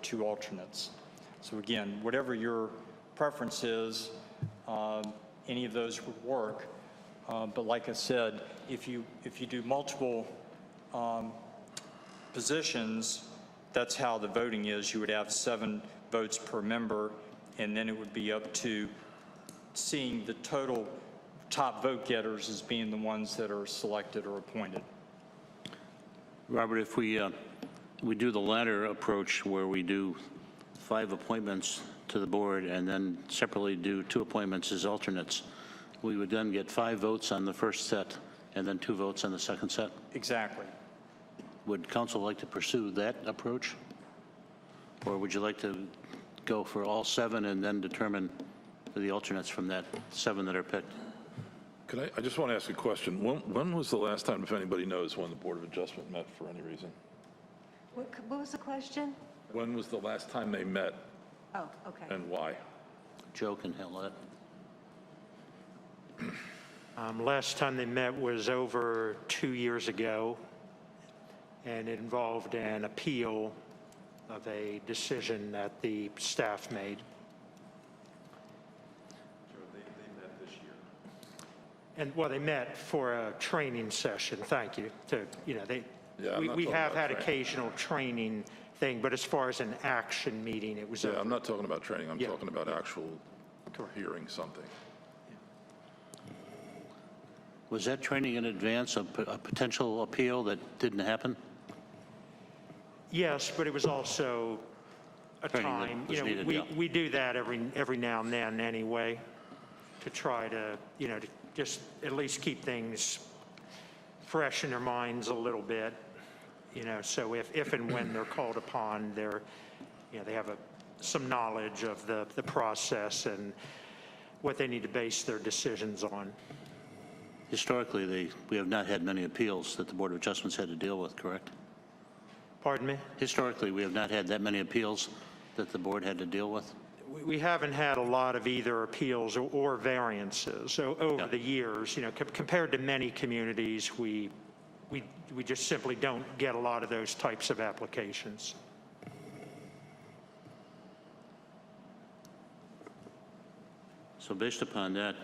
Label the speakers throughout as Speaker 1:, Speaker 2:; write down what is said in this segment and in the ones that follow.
Speaker 1: two alternates. So again, whatever your preference is, um, any of those would work. Uh, But like I said, if you, if you do multiple um, positions, that's how the voting is. You would have seven votes per member, and then it would be up to seeing the total top vote getters as being the ones that are selected or appointed.
Speaker 2: Robert, if we, uh, we do the latter approach where we do five appointments to the board and then separately do two appointments as alternates, we would then get five votes on the first set and then two votes on the second set.
Speaker 1: Exactly.
Speaker 2: Would council like to pursue that approach? Or would you like to go for all seven and then determine the alternates from that seven that are picked?
Speaker 3: Could I, I just want to ask a question. When, when was the last time, if anybody knows, when the Board of Adjustment met for any reason?
Speaker 4: What c- what was the question?
Speaker 3: When was the last time they met
Speaker 4: Oh, okay.
Speaker 3: and why?
Speaker 2: Joe can handle that.
Speaker 5: Um, Last time they met was over two years ago, and it involved an appeal of a decision that the staff made. And, well, they met for a training session, thank you, to, you know, they,
Speaker 3: Yeah, I'm
Speaker 5: we-
Speaker 3: not
Speaker 5: we
Speaker 3: talking
Speaker 5: have
Speaker 3: about
Speaker 5: had
Speaker 3: training.
Speaker 5: occasional training thing, but as far as an action meeting, it was
Speaker 3: Yeah,
Speaker 5: over.
Speaker 3: I'm not talking about training, I'm
Speaker 5: Yeah.
Speaker 3: talking about actual
Speaker 5: Correct.
Speaker 3: hearing something.
Speaker 2: Was that training in advance of p- a potential appeal that didn't happen?
Speaker 5: Yes, but it was also a
Speaker 2: Training that
Speaker 5: time,
Speaker 2: was
Speaker 5: you know,
Speaker 2: needed,
Speaker 5: we,
Speaker 2: yeah.
Speaker 5: we do that every, every now and then anyway, to try to, you know, to just at least keep things fresh in their minds a little bit, you know, so if, if and when they're called upon, they're, you know, they have a, some knowledge of the, the process and what they need to base their decisions on.
Speaker 2: Historically, they, we have not had many appeals that the Board of Adjustments had to deal with, correct?
Speaker 5: Pardon me?
Speaker 2: Historically, we have not had that many appeals that the board had to deal with.
Speaker 5: We- We haven't had a lot of either appeals or- or variances o- over
Speaker 2: Yeah.
Speaker 5: the years, you know, com- compared to many communities, we, we, we just simply don't get a lot of those types of applications.
Speaker 2: So based upon that,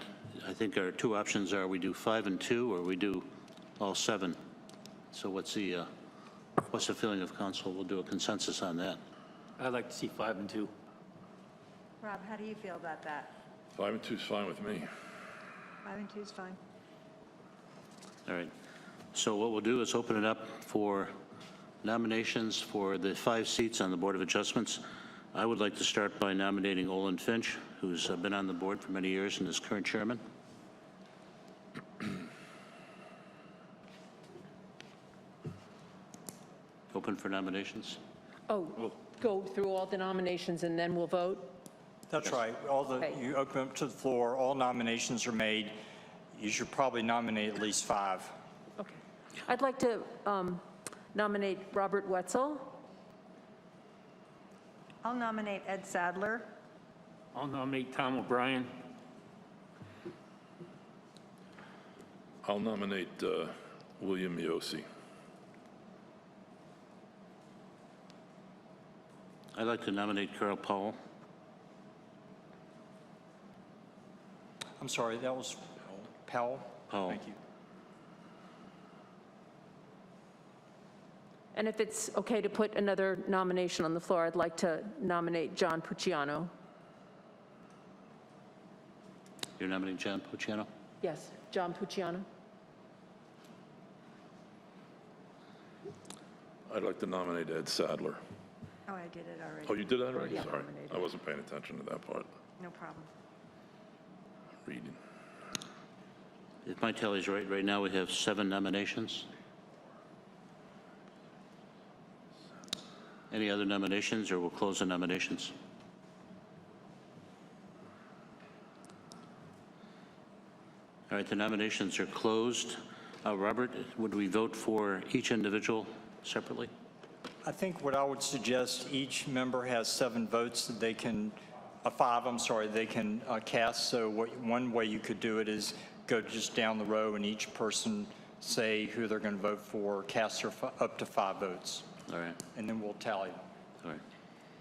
Speaker 2: I think our two options are we do five and two, or we do all seven. So what's the, uh, what's the feeling of council? We'll do a consensus on that.
Speaker 6: I'd like to see five and two.
Speaker 4: Rob, how do you feel about that?
Speaker 3: Five and two's fine with me.
Speaker 4: Five and two's fine.
Speaker 2: All right. So what we'll do is open it up for nominations for the five seats on the Board of Adjustments. I would like to start by nominating Olin Finch, who's uh, been on the board for many years and is current chairman. Open for nominations?
Speaker 7: Oh, go through all the nominations and then we'll vote?
Speaker 1: That's right. All the,
Speaker 7: Okay.
Speaker 1: you open up to the floor, all nominations are made. You should probably nominate at least five.
Speaker 7: Okay. I'd like to um, nominate Robert Wetzel.
Speaker 4: I'll nominate Ed Sadler.
Speaker 6: I'll nominate Tom O'Brien.
Speaker 3: I'll nominate uh, William Yosi.
Speaker 2: I'd like to nominate Carl Powell.
Speaker 1: I'm sorry, that was Powell?
Speaker 2: Powell.
Speaker 1: Thank you.
Speaker 7: And if it's okay to put another nomination on the floor, I'd like to nominate John Pucciano.
Speaker 2: You're nominating John Pucciano?
Speaker 7: Yes, John Pucciano.
Speaker 3: I'd like to nominate Ed Sadler.
Speaker 4: Oh, I did it
Speaker 3: Oh,
Speaker 4: already.
Speaker 3: you did that already?
Speaker 7: Yeah.
Speaker 3: Sorry. I wasn't paying attention to that part.
Speaker 4: No problem.
Speaker 3: Reading.
Speaker 2: If my tally's right, right now we have seven nominations. Any other nominations, or we'll close the nominations? All right, the nominations are closed. Uh, Robert, would we vote for each individual separately?
Speaker 1: I think what I would suggest, each member has seven votes that they can, uh, five, I'm sorry, they can uh, cast. So what, one way you could do it is go just down the row and each person say who they're going to vote for, cast their, fi- up to five votes,
Speaker 2: All right,
Speaker 1: and then we'll tally them.
Speaker 2: all right.